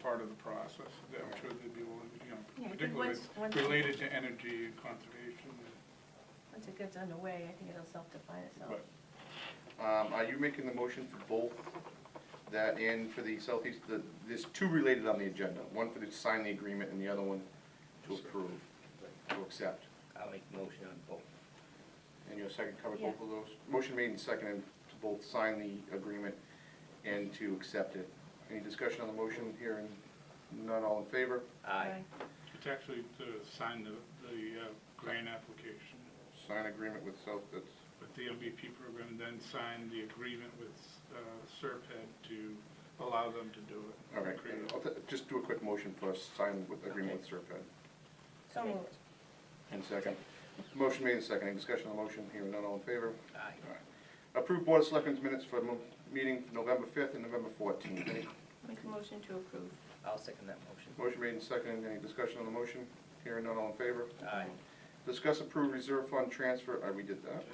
part of the process, that I'm sure they'd be willing, you Yeah, I know, think particularly once- once- related to energy and conservation. Once it gets underway, I think it'll self-define itself. But Um, are you making the motion for both that and for the southeast, the, there's two related on the agenda, one for the sign the agreement and the other one to approve, to accept. I'll make the motion on both. And your second covered both of those? Motion made and seconded to both sign the agreement and to accept it. Any discussion on the motion here? And None, all in favor? Aye. it's actually to sign the, the uh, grant application Sign agreement with South, that's, with the MVP program, then sign the agreement with uh, Serped to allow them to do it. all right. Create it. I'll ta- Just do a quick motion for us, sign with agreement with Serpent. So moved. And second. Motion made and seconded. Any discussion on the motion here? None, all in favor? Aye. Approve Board of Selectmen's minutes for mo- meeting November 5th and November 14th. Any Make a motion to approve. I'll second that motion. motion made and seconded, any discussion on the motion? Hearing none, all in favor? Aye. Discuss approved reserve fund transfer, uh, we did that.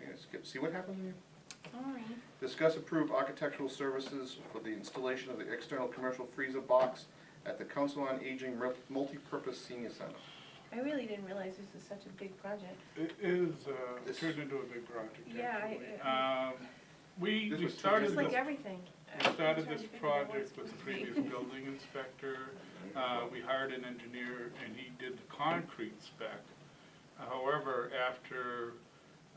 Yeah, Skip, see what happens here? Sorry. Discuss approved architectural services for the installation of the external commercial freezer box at the Council on Aging Rep- Multipurpose Senior Center. I really didn't realize this is such a big project. It is, uh, This- turned into a big project, Yeah, I- actually. I- Um, We, This we was two started It's years this. ago. like everything. We started this project with the previous building inspector. Uh, We hired an engineer, and he did the concrete spec. However, after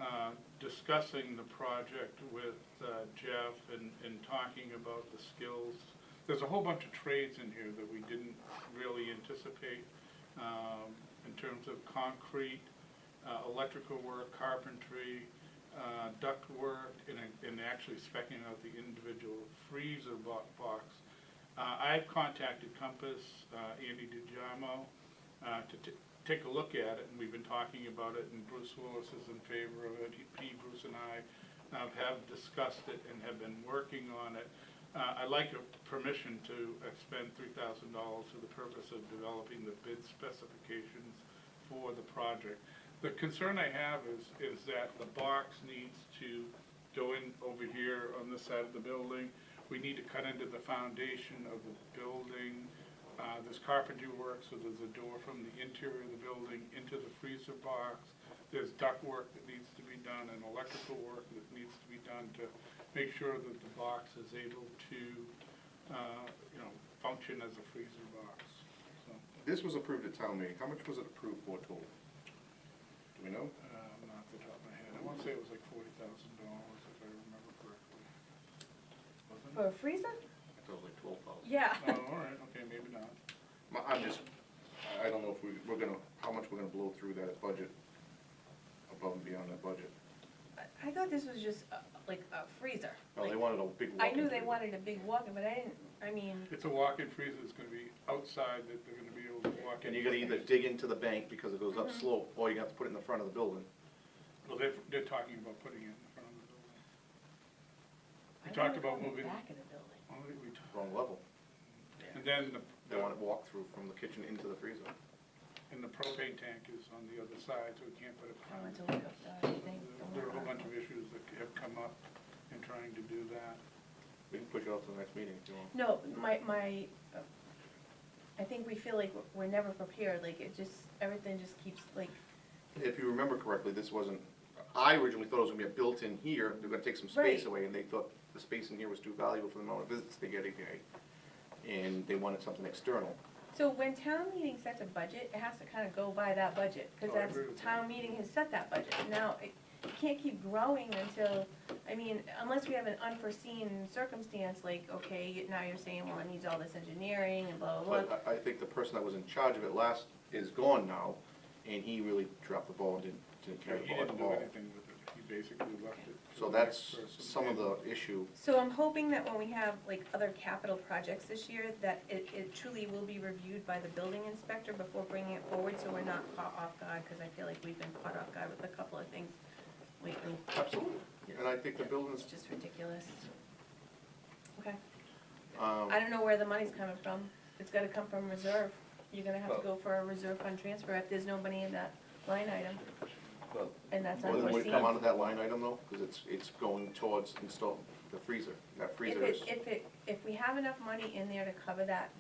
uh, discussing the project with uh, Jeff and, and talking about the skills, there's a whole bunch of trades in here that we didn't really anticipate um, in terms of concrete, uh, electrical work, carpentry, uh, duct work, and, and actually specking out the individual freezer bo- box. Uh, I've contacted Compass, uh, Andy DiGiamo, uh, to t- take a look at it, and we've been talking about it, and Bruce Willis is in favor of it. He- P. Bruce and I uh, have discussed it and have been working on it. Uh, I'd like your permission to expend three thousand dollars for the purpose of developing the bid specifications for the project. The concern I have is, is that the box needs to go in over here on this side of the building. We need to cut into the foundation of the building. Uh, there's carpentry work, so there's a door from the interior of the building into the freezer box. There's duct work that needs to be done and electrical work that needs to be done to make sure that the box is able to, uh, you know, function as a freezer box, so. This was approved at town meeting. How much was it approved for total? Do we know? Um, off the top of my head, I want to say it was like forty thousand dollars, if I remember correctly. Wasn't For a freezer? I thought it was like 12,000. Yeah. it? Oh, all right, okay, maybe not. My- I'm just, I- I don't know if we, we're gonna, how much we're gonna blow through that budget, above and beyond that budget. I- I thought this was just uh, like a freezer. Oh, they Like, wanted a big I knew walk-in they freezer. wanted a big walk-in, but I didn't, I mean, It's a walk-in freezer, it's gonna be outside that they're gonna be able to walk in. And you gotta either dig into the bank because it goes up Mm-hmm. slope, or you have to put it in the front of the building. Well, they're, they're talking about putting it in front of the building. I We don't talked recall about the moving, back of the building. Well, we- we talked- Wrong level. and then the, They want it walk-through from the kitchen into the freezer. and the propane tank is on the other side, so we can't put it. I front. went to look up the thing. There are a whole bunch of issues that have come up in trying to do that. We can push it off to the next meeting if you want. No, my, my, uh, I think we feel like we're- we're never prepared, like it just, everything just keeps like, If you remember correctly, this wasn't, I originally thought it was gonna be a built-in here, they're gonna take some Right. space away, and they thought the space in here was too valuable for the amount of visits they get a day. And they wanted something external. so when town meeting sets a budget, it has to kind of go by that budget, because Oh, I that's, agree with town meeting has set that budget. Now, it it can't keep growing until, I mean, unless we have an unforeseen circumstance, like, okay, now you're saying, well, it needs all this engineering and blah, blah, blah. But I, I think the person that was in charge of it last is gone now, and he really dropped the ball and didn't, didn't He carry the ball at didn't do all. anything with it, he basically left it. to So the next that's person. some of the issue. So I'm hoping that when we have like other capital projects this year, that it, it truly will be reviewed by the building inspector before bringing it forward, so we're not caught off guard, because I feel like we've been caught off guard with a couple of things lately. Absolutely. And I think the It's buildings, just ridiculous. Okay, um, I don't know where the money's coming from, it's gotta come from reserve, you're gonna have to go for a reserve fund transfer if there's no money in that line item, Well, and that's more than would unforeseen. come out of that line item though, because it's, it's going towards install, the freezer. That If freezer is. it, if it, if we have enough money in there to cover that,